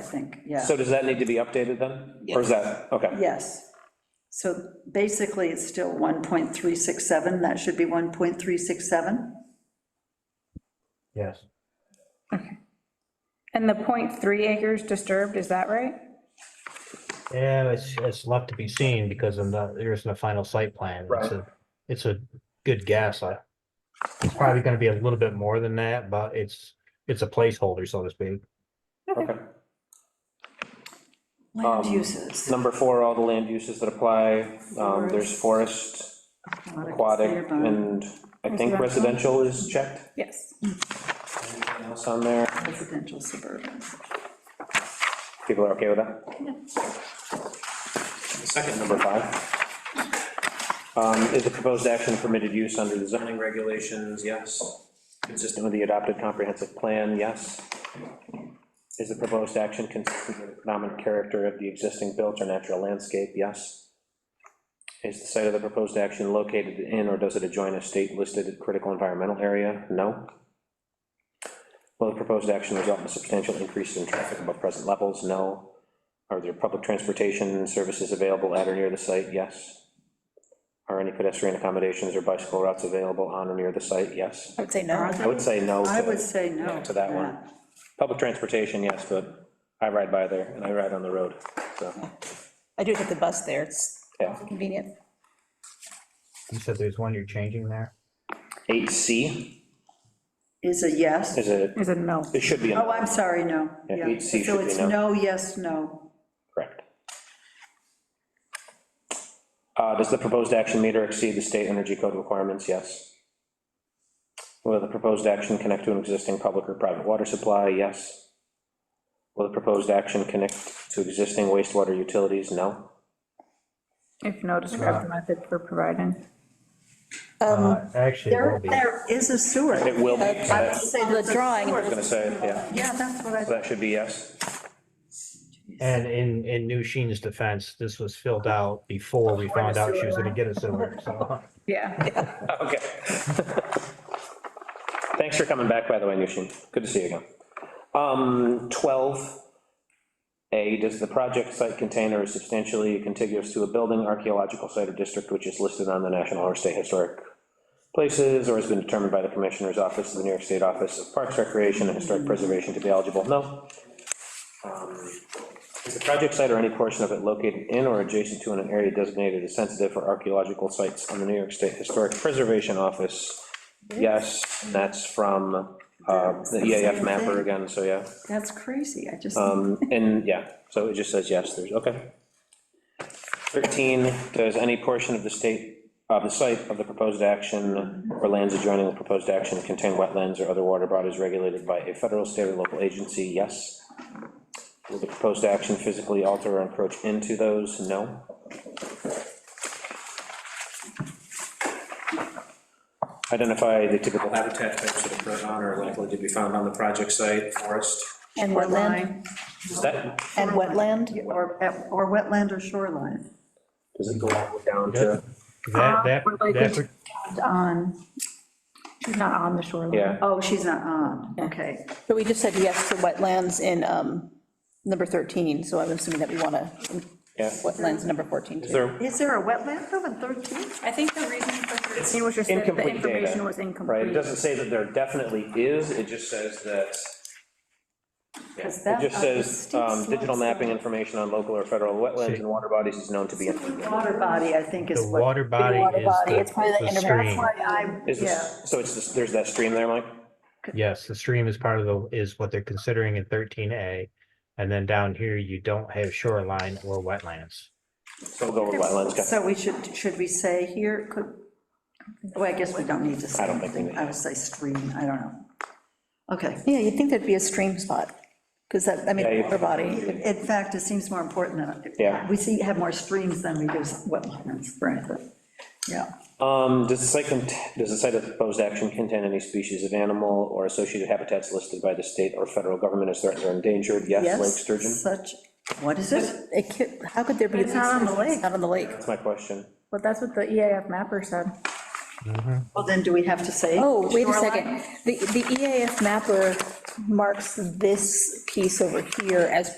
think, yeah. So does that need to be updated then? Or is that, okay, Yes. So basically, it's still 1.367, that should be 1.367? Yes. And the 0.3 acres disturbed, is that right? Yeah, it's, it's left to be seen because I'm not, there isn't a final site plan. It's a, it's a good guess. I- It's probably gonna be a little bit more than that, but it's, it's a placeholder, so to speak. okay. Land Um, uses. Number four, all the land uses that apply, um, there's forest, aquatic, urban. and I think Residential. residential is checked. Yes. Anything else on there? Residential suburban. People are okay with that? The Second, number five. Um, Is the proposed action permitted use under the zoning regulations? Yes. Consistent with the adopted comprehensive plan? Yes. Is the proposed action consistent with the predominant character of the existing built or natural landscape? Yes. Is the site of the proposed action located in or does it adjoin a state-listed critical environmental area? No. Will the proposed action result in a substantial increase in traffic above present levels? No. Are there public transportation services available at or near the site? Yes. Are any pedestrian accommodations or bicycle routes available on or near the site? Yes. I would say no. I would say no. I to- would say no. To that one. Public transportation, yes, but I ride by there and I ride on the road, so, I do take the bus there, it's yeah. convenient. You said there's one you're changing there? 8C Is a yes? is a, Is it no? it should be a Oh, I'm sorry, no. Yeah, Yeah. eight C So should be it's no. no, yes, no. Correct. Uh, Does the proposed action meet or exceed the state energy code requirements? Yes. Will the proposed action connect to an existing public or private water supply? Yes. Will the proposed action connect to existing wastewater utilities? No. If no, describe the method for providing. Uh, Actually, it will There, be. there is a sewer. It will be, so I would that- say The that's a drawing, I was gonna say, yeah, Yeah, that's what I, so that should be yes. And in, in New Sheen's defense, this was filled out before we found out she was gonna get a sewer, so. Yeah. Okay. Thanks for coming back, by the way, Nushin. Good to see you again. Um, 12A, does the project site contain or is substantially contiguous to a building, archaeological site or district which is listed on the National or State Historic Places or has been determined by the Commissioner's Office of the New York State Office of Parks, Recreation, and Historic Preservation to be eligible? No. Um, Is the project site or any portion of it located in or adjacent to an area designated as sensitive for archaeological sites on the New York State Historic Preservation Office? Yes, and that's from uh, the EAF mapper again, so yeah. that's crazy, I just, Um, And, yeah, so it just says yes, there's, okay. 13, does any portion of the state, of the site of the proposed action or lands adjoining the proposed action contain wetlands or other water bodies regulated by a federal, state, or local agency? Yes. Will the proposed action physically alter or encroach into those? No. Identify the typical habitat types that occur on or likely to be found on the project site, forest. And or wetland, line, Is that, and wetland, or, or wetland or shoreline. does it go all the way down Yeah. to? Uh, That, that, we're likely that, to- On, um, she's not on the shoreline. Yeah, Oh, she's not on, okay. but we just said yes to wetlands in um, number 13, so I'm assuming that we want to, yeah. wetlands in number 14 Is too. there Is there a wetland though in 13? I think the reason for 13 was just that the incomplete information was data? Right, it incomplete. doesn't say that there definitely is, it just says that. Yeah, 'Cause that- It just uh, the says, steep um, digital slopes mapping information on local or federal wetlands and water bodies is known to be. Water body, I think is the what. water body water is body, it's probably the, the the stream. intermittent- Why I, Is yeah, this, so it's, this- there's that stream there, Mike? Yes, the stream is part of the, is what they're considering in thirteen A. And then down here, you don't have shoreline or wetlands. So we'll go with wetlands, okay. so we should, should we say here, could, well, I guess we don't need to say I don't think we anything. need I would say stream, I don't know. Okay. Yeah, you'd think there'd be a stream spot, because that, I mean, Yeah, you- water body, In fact, it seems more important that. Yeah. We see, have more streams than we do wetlands, frankly. Yeah. Um, does the site, cont- does the site of proposed action contain any species of animal or associated habitats listed by the state or federal government as threatened or endangered? Yes, lake sturgeon? Such, what is it? it could, how could there be? It's not on the lake. It's Not on the lake. That's my question. But that's what the EAF mapper said. Well, then do we have to say? Oh, wait a shoreline? E second, the, the EAF mapper marks this piece over here as